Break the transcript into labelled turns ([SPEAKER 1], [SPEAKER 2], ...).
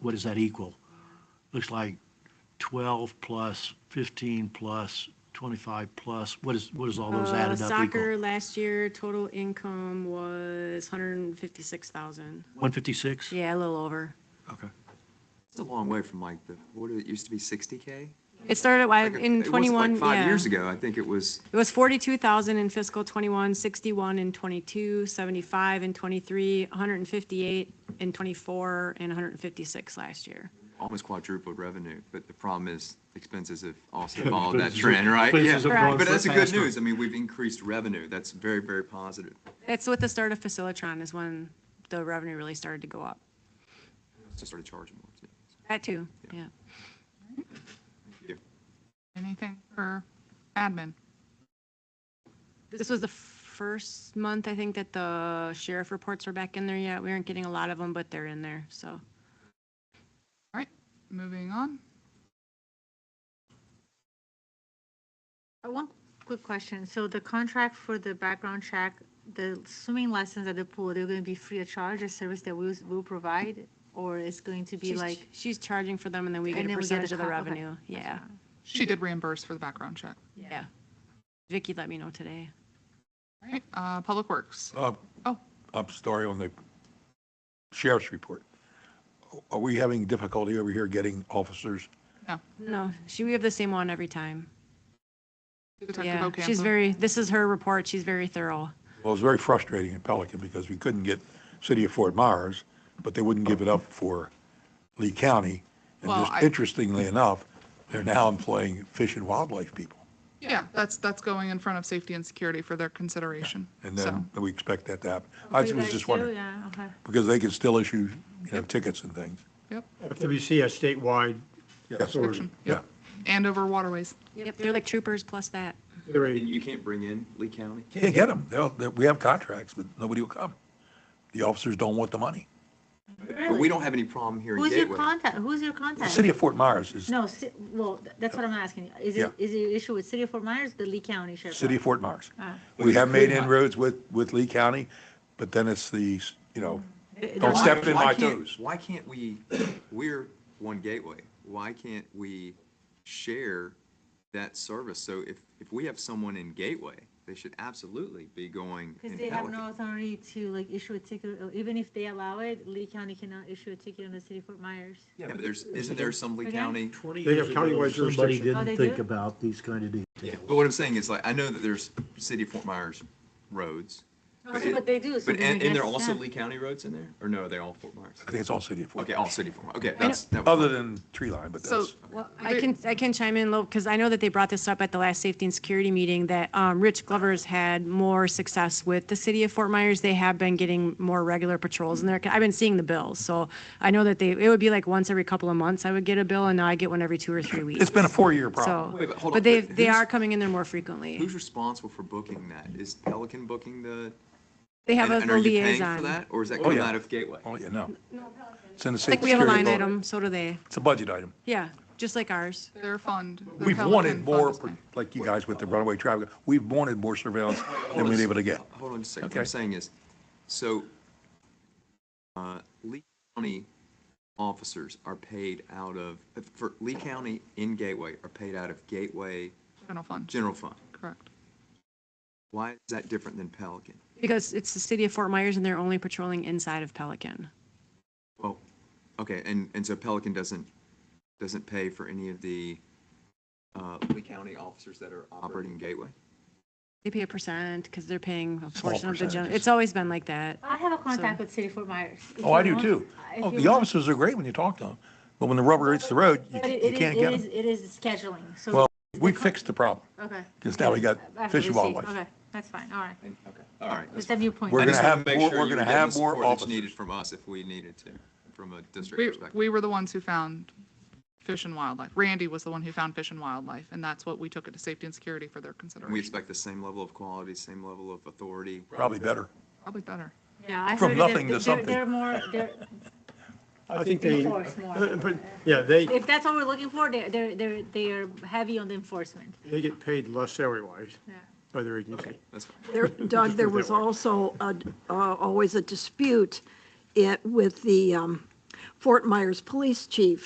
[SPEAKER 1] what does that equal? Looks like 12 plus, 15 plus, 25 plus, what is, what is all those
[SPEAKER 2] Uh,
[SPEAKER 1] added up
[SPEAKER 2] Soccer
[SPEAKER 1] equal?
[SPEAKER 2] last year, total income was hundred and fifty-six thousand.
[SPEAKER 1] 156?
[SPEAKER 2] Yeah, a little over.
[SPEAKER 1] Okay.
[SPEAKER 3] It's a long way from like the, what, it used to be 60K?
[SPEAKER 2] It started
[SPEAKER 3] Like,
[SPEAKER 2] like
[SPEAKER 3] it
[SPEAKER 2] Uh, in
[SPEAKER 3] wasn't
[SPEAKER 2] twenty-one,
[SPEAKER 3] Like five
[SPEAKER 2] yeah.
[SPEAKER 3] years ago, I think it was,
[SPEAKER 2] It was forty-two thousand in fiscal '21, sixty-one in '22, seventy-five in '23, one hundred and fifty-eight in '24, and one hundred and fifty-six last year.
[SPEAKER 3] almost quadrupled revenue, but the problem is expenses have also followed that trend, right? Yeah.
[SPEAKER 1] Expenses have
[SPEAKER 2] gone
[SPEAKER 3] But that's the good
[SPEAKER 1] faster.
[SPEAKER 3] news. I mean, we've increased revenue. That's very, very positive.
[SPEAKER 2] That's with the start of Facilitron is when the revenue really started to go up.
[SPEAKER 3] Just started charging more. too.
[SPEAKER 2] That too, yeah.
[SPEAKER 3] Thank you.
[SPEAKER 4] Anything for admin?
[SPEAKER 2] This was the first month, I think, that the sheriff reports were back in there yet. We aren't getting a lot of them, but they're in there, so.
[SPEAKER 4] All right, moving on.
[SPEAKER 5] Uh, One quick question. So the contract for the background check, the swimming lessons at the pool, they're going to be free of charge, a service that we will provide? Or it's going to be
[SPEAKER 2] She's-
[SPEAKER 5] like,
[SPEAKER 2] She's charging for them and then we get
[SPEAKER 5] And
[SPEAKER 2] a
[SPEAKER 5] then we get a
[SPEAKER 2] percentage of the
[SPEAKER 5] cut, okay.
[SPEAKER 2] revenue. Yeah,
[SPEAKER 4] She did reimburse for the background check.
[SPEAKER 2] yeah. Vicky let me know today.
[SPEAKER 4] All right, uh, Public Works.
[SPEAKER 6] Uh,
[SPEAKER 4] Oh,
[SPEAKER 6] I'm sorry, on the sheriff's report. Are we having difficulty over here getting officers?
[SPEAKER 4] no.
[SPEAKER 2] No, she, we have the same one every time.
[SPEAKER 4] Detective
[SPEAKER 2] Yeah, she's
[SPEAKER 4] Ocampo.
[SPEAKER 2] very, this is her report. She's very thorough.
[SPEAKER 6] Well, it was very frustrating in Pelican because we couldn't get City of Fort Myers, but they wouldn't give it up for Lee County. And
[SPEAKER 4] Well, I-
[SPEAKER 6] just interestingly enough, they're now employing fish and wildlife people.
[SPEAKER 4] Yeah, that's, that's going in front of safety and security for their consideration.
[SPEAKER 6] And
[SPEAKER 4] So,
[SPEAKER 6] then we expect that to happen. I
[SPEAKER 5] You
[SPEAKER 6] was
[SPEAKER 5] guys
[SPEAKER 6] just
[SPEAKER 5] do?
[SPEAKER 6] wondering,
[SPEAKER 5] Yeah, okay.
[SPEAKER 6] because they can still issue, you know, tickets and things.
[SPEAKER 4] Yep,
[SPEAKER 7] FWC has statewide
[SPEAKER 6] Yes.
[SPEAKER 7] authority.
[SPEAKER 6] Yeah.
[SPEAKER 4] Andover Waterways.
[SPEAKER 2] Yep, they're like troopers plus that.
[SPEAKER 7] They're
[SPEAKER 3] And
[SPEAKER 7] a-
[SPEAKER 3] you can't bring in Lee County?
[SPEAKER 6] Can't get them. They'll, they- we have contracts, but nobody will come. The officers don't want the money.
[SPEAKER 3] But we don't have any problem here in
[SPEAKER 5] Who's your
[SPEAKER 3] Gateway.
[SPEAKER 5] contact? Who's your
[SPEAKER 6] The
[SPEAKER 5] contact?
[SPEAKER 6] City of Fort Myers is
[SPEAKER 5] No, ci- well, th- that's what I'm asking. Is
[SPEAKER 6] Yeah.
[SPEAKER 5] it, is it an issue with City of Fort Myers, the Lee County Sheriff?
[SPEAKER 6] City of Fort Myers.
[SPEAKER 2] uh,
[SPEAKER 5] Ah.
[SPEAKER 6] We have made inroads with, with Lee County, but then it's the, you know, don't step in
[SPEAKER 3] Why
[SPEAKER 6] my
[SPEAKER 3] can't-
[SPEAKER 6] toes.
[SPEAKER 3] Why can't we, we're one gateway, why can't we share that service? So if, if we have someone in Gateway, they should absolutely be going in
[SPEAKER 5] Because they have no
[SPEAKER 3] Pelican.
[SPEAKER 5] authority to like issue a ticket, or even if they allow it, Lee County cannot issue a ticket on the City of Fort Myers.
[SPEAKER 3] Yeah, but there's, isn't there some Lee
[SPEAKER 5] Again?
[SPEAKER 3] County?
[SPEAKER 7] They have
[SPEAKER 1] Somebody
[SPEAKER 7] countywide jurisdiction.
[SPEAKER 5] Oh, they
[SPEAKER 1] didn't think
[SPEAKER 5] do?
[SPEAKER 1] about these kind of details.
[SPEAKER 3] Yeah, but what I'm saying is like, I know that there's City of Fort Myers roads.
[SPEAKER 5] Okay,
[SPEAKER 3] it-
[SPEAKER 5] Oh, but they do, so
[SPEAKER 3] But,
[SPEAKER 5] then I
[SPEAKER 3] and, and there are
[SPEAKER 5] guess,
[SPEAKER 3] also
[SPEAKER 5] yeah.
[SPEAKER 3] Lee County roads in there? Or no, are they all Fort Myers?
[SPEAKER 6] I think it's all City of Fort.
[SPEAKER 3] Okay, all City of Fort Myers. Okay, that's. that was
[SPEAKER 6] Other
[SPEAKER 3] my-
[SPEAKER 6] than tree line, but
[SPEAKER 4] So,
[SPEAKER 6] that's,
[SPEAKER 2] I can, I can chime in, because I know that they brought this up at the last safety and security meeting, that um, Rich Glover's had more success with the city of Fort Myers. They have been getting more regular patrols in there. I've been seeing the bills, so I know that they, it would be like once every couple of months I would get a bill, and now I get one every two or three weeks.
[SPEAKER 6] it's been a four-year problem.
[SPEAKER 2] So,
[SPEAKER 3] Wait, but hold
[SPEAKER 2] but
[SPEAKER 3] on,
[SPEAKER 2] they,
[SPEAKER 3] but
[SPEAKER 2] they
[SPEAKER 3] who's-
[SPEAKER 2] are coming in there more frequently.
[SPEAKER 3] Who's responsible for booking that? Is Pelican booking the?
[SPEAKER 2] They have
[SPEAKER 3] and-
[SPEAKER 2] a
[SPEAKER 3] and are you paying for
[SPEAKER 2] liaison.
[SPEAKER 3] that, Or is that
[SPEAKER 6] Oh,
[SPEAKER 3] coming
[SPEAKER 6] yeah.
[SPEAKER 3] out of Gateway?
[SPEAKER 6] Oh, yeah, no. It's in the
[SPEAKER 2] Like,
[SPEAKER 6] City
[SPEAKER 2] we have a
[SPEAKER 6] Security
[SPEAKER 2] line
[SPEAKER 6] Authority.
[SPEAKER 2] item, so do they.
[SPEAKER 6] It's a budget item.
[SPEAKER 2] Yeah, just like ours.
[SPEAKER 4] their fund. the
[SPEAKER 6] We've
[SPEAKER 4] Pelican
[SPEAKER 6] wanted
[SPEAKER 4] fund
[SPEAKER 6] more,
[SPEAKER 4] is paying.
[SPEAKER 6] like you guys with the runaway traffic, we've wanted more surveillance than we're able to get.
[SPEAKER 3] Hold on just a second. What I'm
[SPEAKER 6] Okay.
[SPEAKER 3] saying is, so, uh, Lee County officers are paid out of, for Lee County in Gateway are paid out of Gateway
[SPEAKER 4] General fund,
[SPEAKER 3] General Fund.
[SPEAKER 4] correct.
[SPEAKER 3] Why is that different than Pelican?
[SPEAKER 2] Because it's the city of Fort Myers and they're only patrolling inside of Pelican.
[SPEAKER 3] Oh, okay, and, and so Pelican doesn't, doesn't pay for any of the, uh, Lee County officers that are operating in Gateway?
[SPEAKER 2] They pay a percent because they're paying a
[SPEAKER 6] Small
[SPEAKER 2] portion of the general.
[SPEAKER 6] percentages.
[SPEAKER 2] It's always been like that.
[SPEAKER 5] I have a contact with City of Fort Myers. If
[SPEAKER 6] Oh, I
[SPEAKER 5] you
[SPEAKER 6] do
[SPEAKER 5] want-
[SPEAKER 6] too.
[SPEAKER 5] if
[SPEAKER 6] Oh,
[SPEAKER 5] you
[SPEAKER 6] the
[SPEAKER 5] want-
[SPEAKER 6] officers are great when you talk to them, but when the rubber hits the road, you
[SPEAKER 5] But it-
[SPEAKER 6] you
[SPEAKER 5] it is-
[SPEAKER 6] can't get
[SPEAKER 5] It is,
[SPEAKER 6] them.
[SPEAKER 5] it is scheduling, so.
[SPEAKER 6] Well, we fixed the problem,
[SPEAKER 5] Okay.
[SPEAKER 6] because now we got
[SPEAKER 5] After
[SPEAKER 6] fish and
[SPEAKER 5] the seat,
[SPEAKER 6] wildlife.
[SPEAKER 5] Okay, that's fine, all right.
[SPEAKER 3] And- Okay, all right.
[SPEAKER 5] It's a viewpoint.
[SPEAKER 6] We're
[SPEAKER 3] I just wanted
[SPEAKER 6] gonna have
[SPEAKER 3] to make
[SPEAKER 6] more-
[SPEAKER 3] sure
[SPEAKER 6] we're
[SPEAKER 3] you
[SPEAKER 6] gonna
[SPEAKER 3] were getting
[SPEAKER 6] have
[SPEAKER 3] the
[SPEAKER 6] more
[SPEAKER 3] support that's
[SPEAKER 6] officers.
[SPEAKER 3] Needed from us if we needed to, from a district
[SPEAKER 4] We,
[SPEAKER 3] perspective.
[SPEAKER 4] we were the ones who found fish and wildlife. Randy was the one who found fish and wildlife, and that's what we took it to safety and security for their
[SPEAKER 3] We
[SPEAKER 4] consideration.
[SPEAKER 3] expect the same level of quality, same level of authority.
[SPEAKER 6] Probably better.
[SPEAKER 4] Probably better.
[SPEAKER 5] Yeah, I
[SPEAKER 6] From
[SPEAKER 5] heard that
[SPEAKER 6] nothing to
[SPEAKER 5] they're-
[SPEAKER 6] something.
[SPEAKER 5] They're more, they're,
[SPEAKER 7] I think they,
[SPEAKER 5] Enforce more.
[SPEAKER 7] but, yeah, they,
[SPEAKER 5] if that's what we're looking for, they're, they're, they're, they are heavy on the enforcement.
[SPEAKER 7] they get paid less salary-wise
[SPEAKER 5] Yeah.
[SPEAKER 7] by their agency.
[SPEAKER 3] That's fine.
[SPEAKER 8] There- Doug, there
[SPEAKER 7] put it
[SPEAKER 8] was
[SPEAKER 7] that way.
[SPEAKER 8] also a- uh, always a dispute it- with the um, Fort Myers Police Chief